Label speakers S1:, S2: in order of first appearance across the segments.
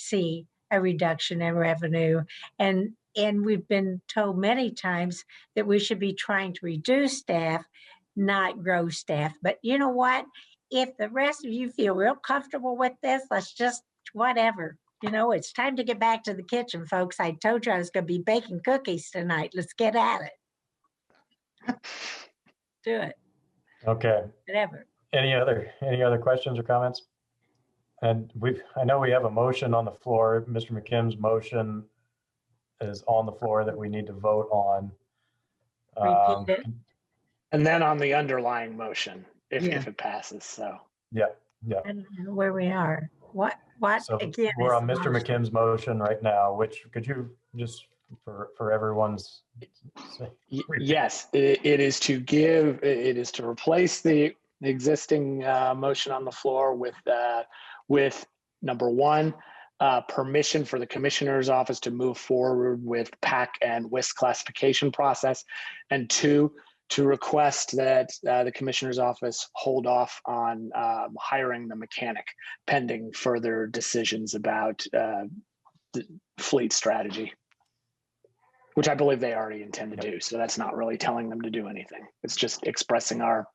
S1: see a reduction in revenue. And, and we've been told many times that we should be trying to reduce staff, not grow staff. But you know what? If the rest of you feel real comfortable with this, let's just, whatever. You know, it's time to get back to the kitchen, folks. I told you I was going to be baking cookies tonight. Let's get at it. Do it,
S2: Okay,
S1: whatever.
S2: any other, any other questions or comments? And we've, I know we have a motion on the floor. Mr. McKim's motion is on the floor that we need to vote on. Um,
S1: Repeat it.
S3: And then on the underlying motion, if,
S1: Yeah.
S3: if it passes, so.
S2: Yeah,
S1: I don't know where we are. What, what,
S2: so
S1: again?
S2: we're
S1: is
S2: on Mr.
S1: lost.
S2: McKim's motion right now, which could you just for, for everyone's
S3: Y-
S2: Repeat.
S3: Yes, i- it is to give, i- it is to replace the the existing uh, motion on the floor with, uh, with number one, uh, permission for the commissioner's office to move forward with PAC and WIS classification process. And two, to request that uh, the commissioner's office hold off on um, hiring the mechanic pending further decisions about uh, the fleet strategy which I believe they already intend to do. So that's not really telling them to do anything. It's just expressing our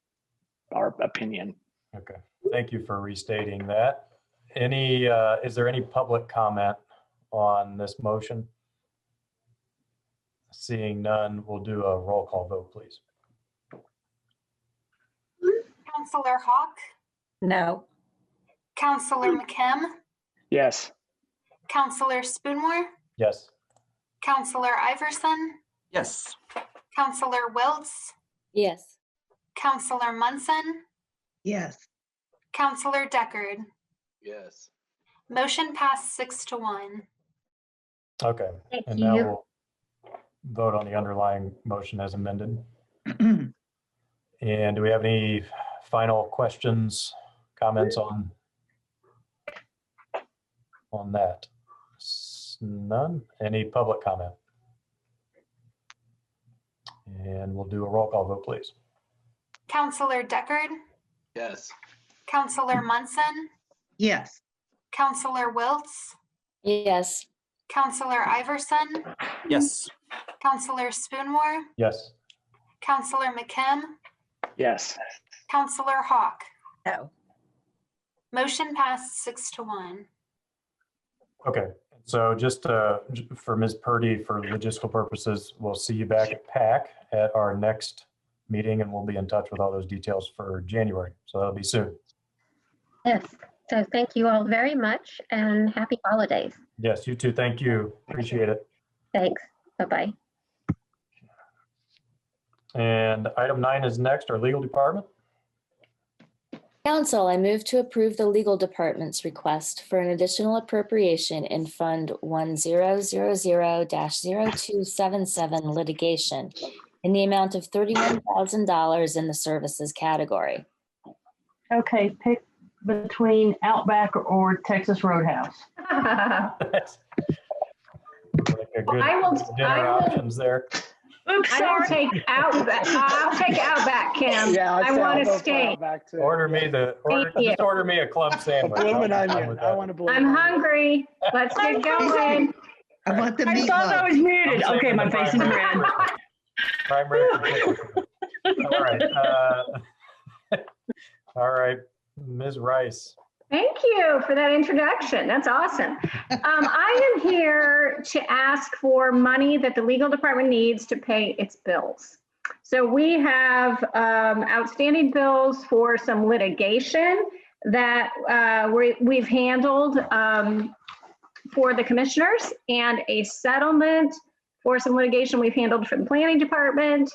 S3: our opinion.
S2: Okay, thank you for restating that. Any, uh, is there any public comment on this motion? Seeing none, we'll do a roll call vote, please.
S4: Counselor Hawk,
S1: No,
S4: Counselor McKim,
S3: Yes.
S4: Counselor Spoonmore,
S2: Yes,
S4: Counselor Iverson,
S5: Yes.
S4: Counselor Wiltz,
S6: Yes.
S4: Counselor Munson,
S7: Yes,
S4: Counselor Deckard.
S5: Yes.
S4: Motion passed six to one.
S2: okay.
S1: thank
S2: And now
S1: you.
S2: we'll vote on the underlying motion as amended. And do we have any final questions, comments on on that? S- None? Any public comment? And we'll do a roll call vote, please.
S4: Counselor Deckard,
S5: Yes.
S4: Counselor Munson,
S7: yes,
S4: Counselor Wiltz,
S6: Yes.
S4: Counselor Iverson,
S5: Yes.
S4: Counselor Spoonmore,
S2: Yes.
S4: Counselor McKim,
S3: Yes.
S4: Counselor Hawk.
S1: No,
S4: Motion passed six to one.
S2: Okay, so just uh, j- for Ms. Purdy, for logistical purposes, we'll see you back at PAC at our next meeting, and we'll be in touch with all those details for January. So that'll be soon.
S8: Yes, so thank you all very much and happy holidays.
S2: Yes, you too. Thank you. Appreciate it.
S8: Thanks. Bye-bye.
S2: And item nine is next, our legal department.
S6: Council, I move to approve the legal department's request for an additional appropriation in Fund 1000-0277 litigation in the amount of $31,000 in the services category.
S9: Okay, pick between Outback or Texas Roadhouse.
S10: I
S2: Like a good
S10: I will-
S2: Dinner
S10: I will-
S2: options there.
S9: Oops,
S10: will take Outback, I'll take Outback, Kim. Um, I want a steak.
S3: Back to
S2: Order me the, order,
S10: Thank you.
S2: just order me a club sandwich.
S3: Blue
S2: I'll be
S3: and
S2: fine
S3: onion.
S2: with
S3: I
S2: that.
S3: want to blue.
S10: I'm
S3: and onion.
S10: hungry. Let's get going.
S7: I want the
S9: I thought I
S7: meatloaf.
S9: was muted.
S2: I'm
S9: Okay,
S2: saving
S9: my
S2: the
S9: face is
S2: primary
S9: red.
S2: for- primary for chicken. All right. uh, All right, Ms. Rice.
S10: Thank you for that introduction. That's awesome. Um, I am here to ask for money that the legal department needs to pay its bills. So we have um, outstanding bills for some litigation that uh, we, we've handled um, for the commissioners and a settlement for some litigation we've handled from the planning department.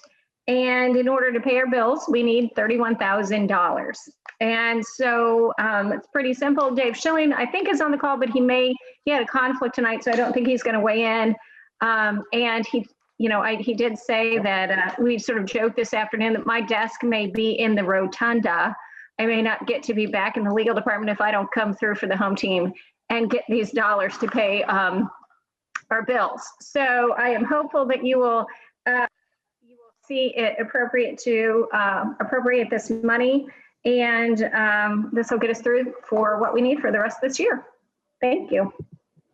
S10: And in order to pay our bills, we need $31,000. And so um, it's pretty simple. Dave Schilling, I think, is on the call, but he may, he had a conflict tonight, so I don't think he's going to weigh in. Um, and he, you know, I, he did say that uh, we sort of joked this afternoon that my desk may be in the rotunda. I may not get to be back in the legal department if I don't come through for the home team and get these dollars to pay um, our bills. So I am hopeful that you will. Uh, you will see it appropriate to um, appropriate this money and um, this will get us through for what we need for the rest of this year. Thank you.